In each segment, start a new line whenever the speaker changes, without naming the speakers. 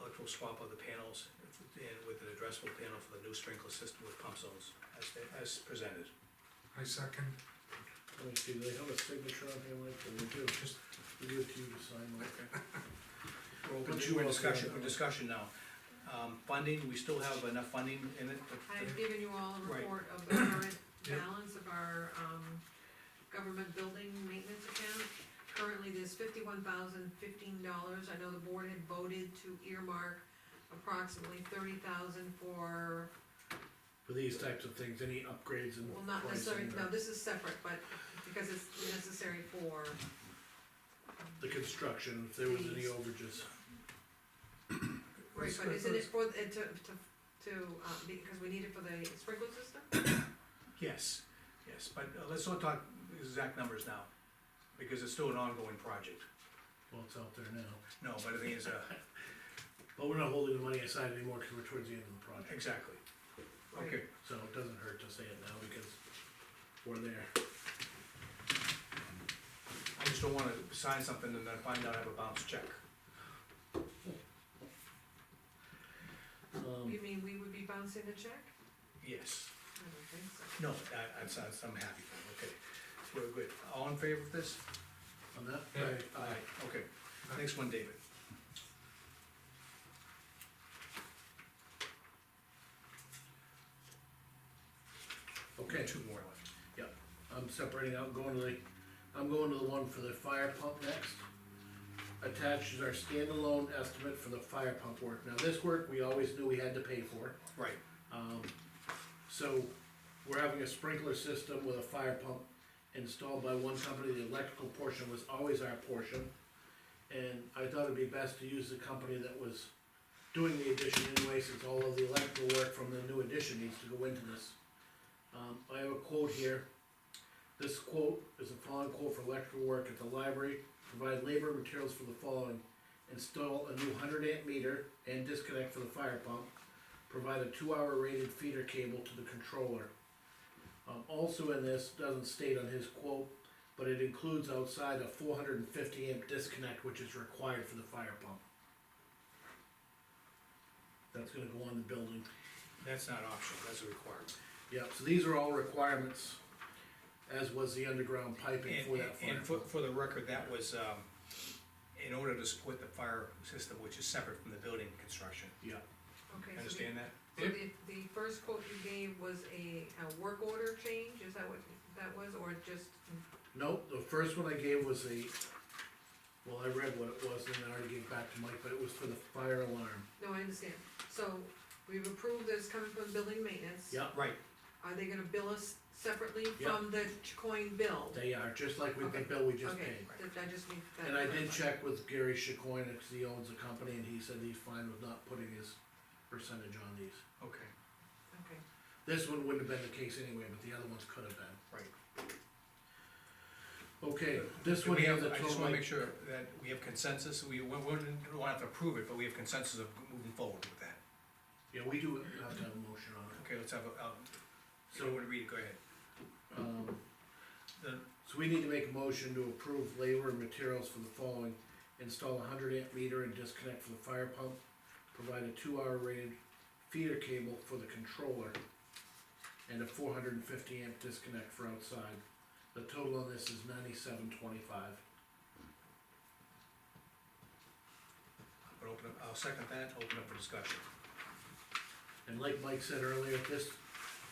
electrical swap of the panels and with an addressable panel for the new sprinkler system with pump zones, as, as presented.
I second,
Let me see, do they have a signature on here, Mike, or we do, just, we give it to you to sign, Mike?
We're open
But
to,
you
we're
all
discussion,
can-
we're discussion now. Um, funding, we still have enough funding in it, but
I've given you all a
Right.
report of the current
Yep.
balance of our, um, government building maintenance account. Currently, there's fifty-one thousand fifteen dollars, I know the board had voted to earmark approximately thirty thousand for,
For these types of things, any upgrades and
well, not necessarily,
pricing,
no,
or
this is separate, but because it's necessary for,
the construction, if there was any
These.
overages.
right, but
Sprinkler
isn't it for, uh, to, to, to, uh, because we need it for the sprinkler system?
yes, yes, but uh, let's not talk exact numbers now, because it's still an ongoing project.
Well, it's out there now,
No, but the thing is, uh,
but we're not holding the money aside anymore, cause we're towards the end of the project,
exactly. Okay,
so it doesn't hurt to say it now, because we're there.
I just don't wanna sign something and then find out I have a bounce check.
Um,
You mean we would be bouncing the check?
Yes,
I don't think so.
no, I, I'm, s- I'm happy, okay, we're good. All in favor of this?
on that,
Yeah.
Aye. Okay, next one, David.
okay,
Two more left.
I'm separating out, going to the, I'm going to the one for the fire pump next. Attached is our standalone estimate for the fire pump work, now this work, we always knew we had to pay for.
Right,
Um, so, we're having a sprinkler system with a fire pump installed by one company, the electrical portion was always our portion. And I thought it'd be best to use the company that was doing the addition anyway, since all of the electrical work from the new addition needs to go into this. Um, I have a quote here. This quote is a following quote for electrical work at the library, provide labor and materials for the following. Install a new hundred amp meter and disconnect for the fire pump provide a two-hour rated feeder cable to the controller. Um, also in this, doesn't state on his quote, but it includes outside a four hundred and fifty amp disconnect, which is required for the fire pump. That's gonna go on the building.
that's not optional, that's a requirement.
Yep, so these are all requirements, as was the underground piping for
And,
that fire
and for,
pump.
for the record, that was, um, in order to support the fire system, which is separate from the building construction.
Yeah,
Okay, so the-
Understand that?
So the, the first quote you gave was a, a work order change, is that what that was, or just,
nope, the first one I gave was a, well, I read what it was and I already gave back to Mike, but it was for the fire alarm.
no, I understand. So we've approved this coming from building maintenance.
Yep.
Right,
Are they gonna bill us separately
Yeah.
from the ch- coin bill?
They are, just like with the
Okay.
bill we just
Okay,
paid.
that- I just need that.
And I did check with Gary Chacoine, cause he owns the company, and he said he's fine with not putting his percentage on these.
okay,
Okay,
This one wouldn't have been the case anyway, but the other ones could have been.
right.
Okay, this
Do
one
we
has
have,
a
I just
total,
wanna
like-
make sure that we have consensus, we, we wouldn't, want to approve it, but we have consensus of moving forward with that.
yeah, we do have to have a motion on it.
Okay, let's have, a- um, so
So-
I wanna read it, go ahead.
Um,
The,
So we need to make a motion to approve labor and materials for the following. Install a hundred amp meter and disconnect for the fire pump. Provide a two hour rated feeder cable for the controller. And a four hundred and fifty amp disconnect for outside. The total on this is ninety-seven twenty-five.
I'll open up, I'll second that, open up for discussion.
And like Mike said earlier, this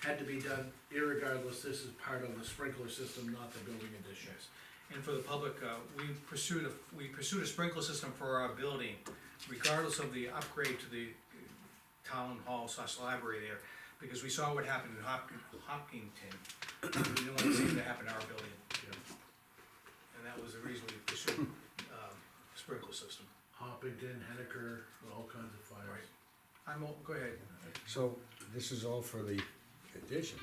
had to be done irregardless, this is part of the sprinkler system, not the building addition.
Yes, and for the public, uh, we pursued a, we pursued a sprinkler system for our building, regardless of the upgrade to the town hall slash library there, because we saw what happened in Hopkin, Hopkinton. We didn't want to see that happen to our building,
Yeah.
and that was the reason we pursued, um, sprinkler system.
Hoppington, Hennecker, all kinds of fires.
I'm, all- go ahead,
So this is all for the addition?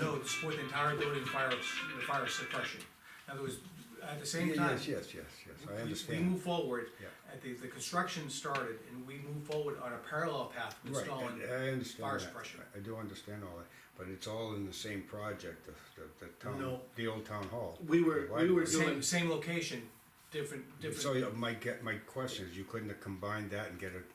no, to support the entire building fire, the fire suppression. In other words, at the same time.
Yes, yes, yes, yes,
We-
I
we-
understand.
We move forward,
Yeah.
at the, the construction started, and we move forward on a parallel path to
Right,
installing.
I- I
fire
understand that.
suppression.
I do understand all that, but it's all in the same project, the, the- the town,
No.
the old town hall.
We were- we were doing-
Same, same location, different, different.
So yeah, my, ge- my question is, you couldn't have combined that and get a